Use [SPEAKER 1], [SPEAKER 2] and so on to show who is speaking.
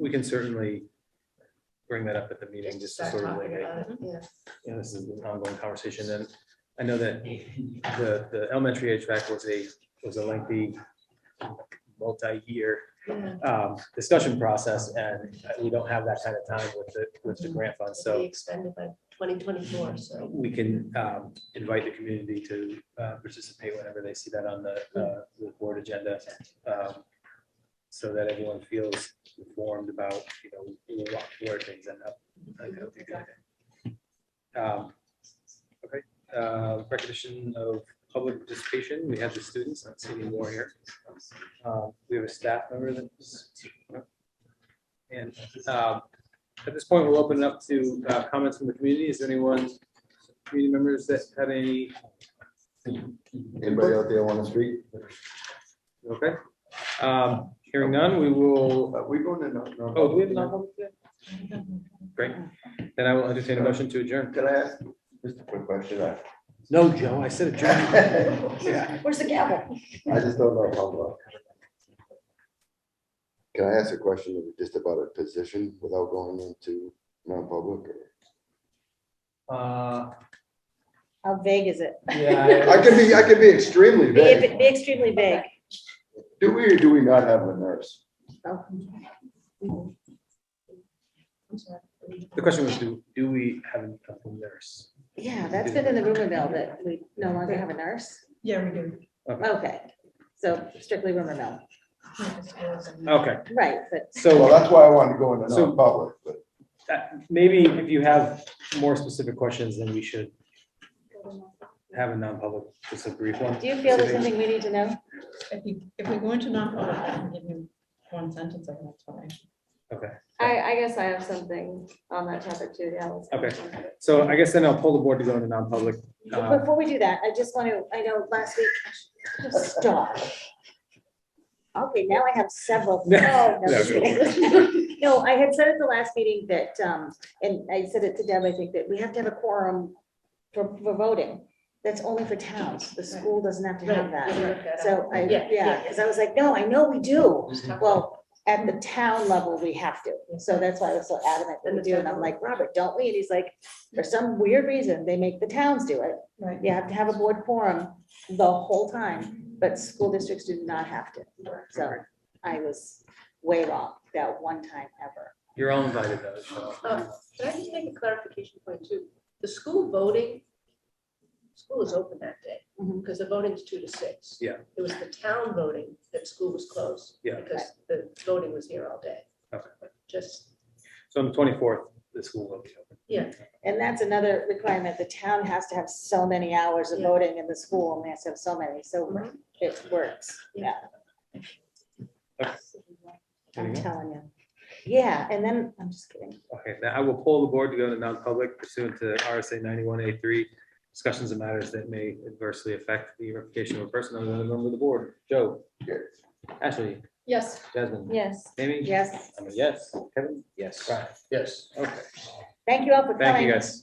[SPEAKER 1] we can certainly bring that up at the meeting, just to
[SPEAKER 2] Start
[SPEAKER 1] sort of like,
[SPEAKER 2] talking
[SPEAKER 1] hey,
[SPEAKER 2] about it, Yes.
[SPEAKER 1] you know, this is an ongoing conversation, and I know that the, the elementary HVAC was a, was a lengthy, multi-year
[SPEAKER 2] Yeah.
[SPEAKER 1] um, discussion process, and we don't have that kind of time with the, with
[SPEAKER 2] Mm-hmm.
[SPEAKER 1] the grant fund,
[SPEAKER 2] It'll be
[SPEAKER 1] so
[SPEAKER 2] expended by twenty twenty-four, so.
[SPEAKER 1] we can um, invite the community to uh, participate whenever they see that on the, uh, the board agenda. um, So that everyone feels informed about, you know, what- where things end up. I think that would be a good idea. Um, Okay, uh, recognition of public participation, we have the students, not seeing any more here. Um, We have a staff member that's. And um, at this point, we'll open it up to uh, comments from the community. Is there anyone, community members that have any?
[SPEAKER 3] Anybody out there on the street?
[SPEAKER 1] Okay. Um, Hearing none, we will,
[SPEAKER 3] Uh, We going to. non- non-
[SPEAKER 1] oh, do we have non-public yet? Great. Then I will entertain a motion to adjourn.
[SPEAKER 3] Can I ask just a quick question? I
[SPEAKER 1] No, Joe, I said
[SPEAKER 3] I
[SPEAKER 2] Where's the gavel?
[SPEAKER 3] just don't know how long. Can I ask a question just about a position without going into non-public?
[SPEAKER 1] Uh,
[SPEAKER 4] How vague is it?
[SPEAKER 1] yeah.
[SPEAKER 3] I can be, I can be extremely
[SPEAKER 4] Be
[SPEAKER 3] vague.
[SPEAKER 4] be extremely vague.
[SPEAKER 3] Do we or do we not have a nurse?
[SPEAKER 2] I'm sorry.
[SPEAKER 1] The question was, do, do we have a nurse?
[SPEAKER 4] Yeah, that's been in the rumor mill that we no longer have a nurse.
[SPEAKER 2] Yeah, we do.
[SPEAKER 4] Okay, so strictly rumor mill,
[SPEAKER 1] Okay,
[SPEAKER 4] right, but
[SPEAKER 3] Well,
[SPEAKER 1] so
[SPEAKER 3] that's why I wanted to go into
[SPEAKER 1] So-
[SPEAKER 3] non-public, but
[SPEAKER 1] that- maybe if you have more specific questions, then we should have a non-public, just a brief one.
[SPEAKER 4] do you feel there's something we need to know?
[SPEAKER 5] If you, if we go into non-public, I can give you one sentence of that's fine.
[SPEAKER 1] Okay,
[SPEAKER 4] I, I guess I have something on that topic too, yeah. let's-
[SPEAKER 1] Okay. so I guess then I'll pull the board to go into non-public.
[SPEAKER 4] But
[SPEAKER 1] Uh,
[SPEAKER 4] Before we do that, I just want to, I know last week, just stop. Okay, now I have several.
[SPEAKER 1] No,
[SPEAKER 4] Oh, no,
[SPEAKER 1] no,
[SPEAKER 4] just
[SPEAKER 1] no.
[SPEAKER 4] kidding. No, I had said at the last meeting that, um, and I said it to Deb, I think that we have to have a quorum for, for voting. That's only for towns. The school doesn't have to have that. So I,
[SPEAKER 5] Yeah,
[SPEAKER 4] yeah,
[SPEAKER 5] yeah.
[SPEAKER 4] because I was like, no, I know we do. Well, at the town level, we have to. So that's why I was so adamant that we do. And I'm like, Robert, don't we? And he's like, for some weird reason, they make the towns do it.
[SPEAKER 5] Right.
[SPEAKER 4] You have to have a board quorum the whole time, but school districts do not have to. So I was way wrong that one time ever.
[SPEAKER 1] You're all invited though, so.
[SPEAKER 2] Oh, Can I just make a clarification point too? The school voting, school is open that day
[SPEAKER 4] Mhm.
[SPEAKER 2] because the voting's two to six.
[SPEAKER 1] Yeah.
[SPEAKER 2] It was the town voting that school was closed.
[SPEAKER 1] Yeah.
[SPEAKER 2] Because the voting was here all day.
[SPEAKER 1] Okay.
[SPEAKER 2] Just,
[SPEAKER 1] So on the twenty-fourth, the school will be open.
[SPEAKER 2] yeah,
[SPEAKER 4] And that's another requirement. The town has to have so many hours of
[SPEAKER 2] Yeah.
[SPEAKER 4] voting in the school and they have to have so many, so
[SPEAKER 2] Mhm.
[SPEAKER 4] it works. Yeah, I'm
[SPEAKER 1] Anything else?
[SPEAKER 4] telling you. Yeah, and then, I'm just kidding.
[SPEAKER 1] Okay, now I will pull the board to go into non-public pursuant to RSA ninety-one A three. Discussions of matters that may adversely affect the reputation of a person other than a member of the board. Joe?
[SPEAKER 3] Yes.
[SPEAKER 1] Ashley?
[SPEAKER 5] Yes.
[SPEAKER 1] Jasmine?
[SPEAKER 4] Yes.
[SPEAKER 1] Amy?
[SPEAKER 4] Yes.
[SPEAKER 1] I'm a yes. Kevin? Yes. Brian?
[SPEAKER 3] yes.
[SPEAKER 1] Okay,
[SPEAKER 4] Thank you all for coming.
[SPEAKER 1] thank you guys.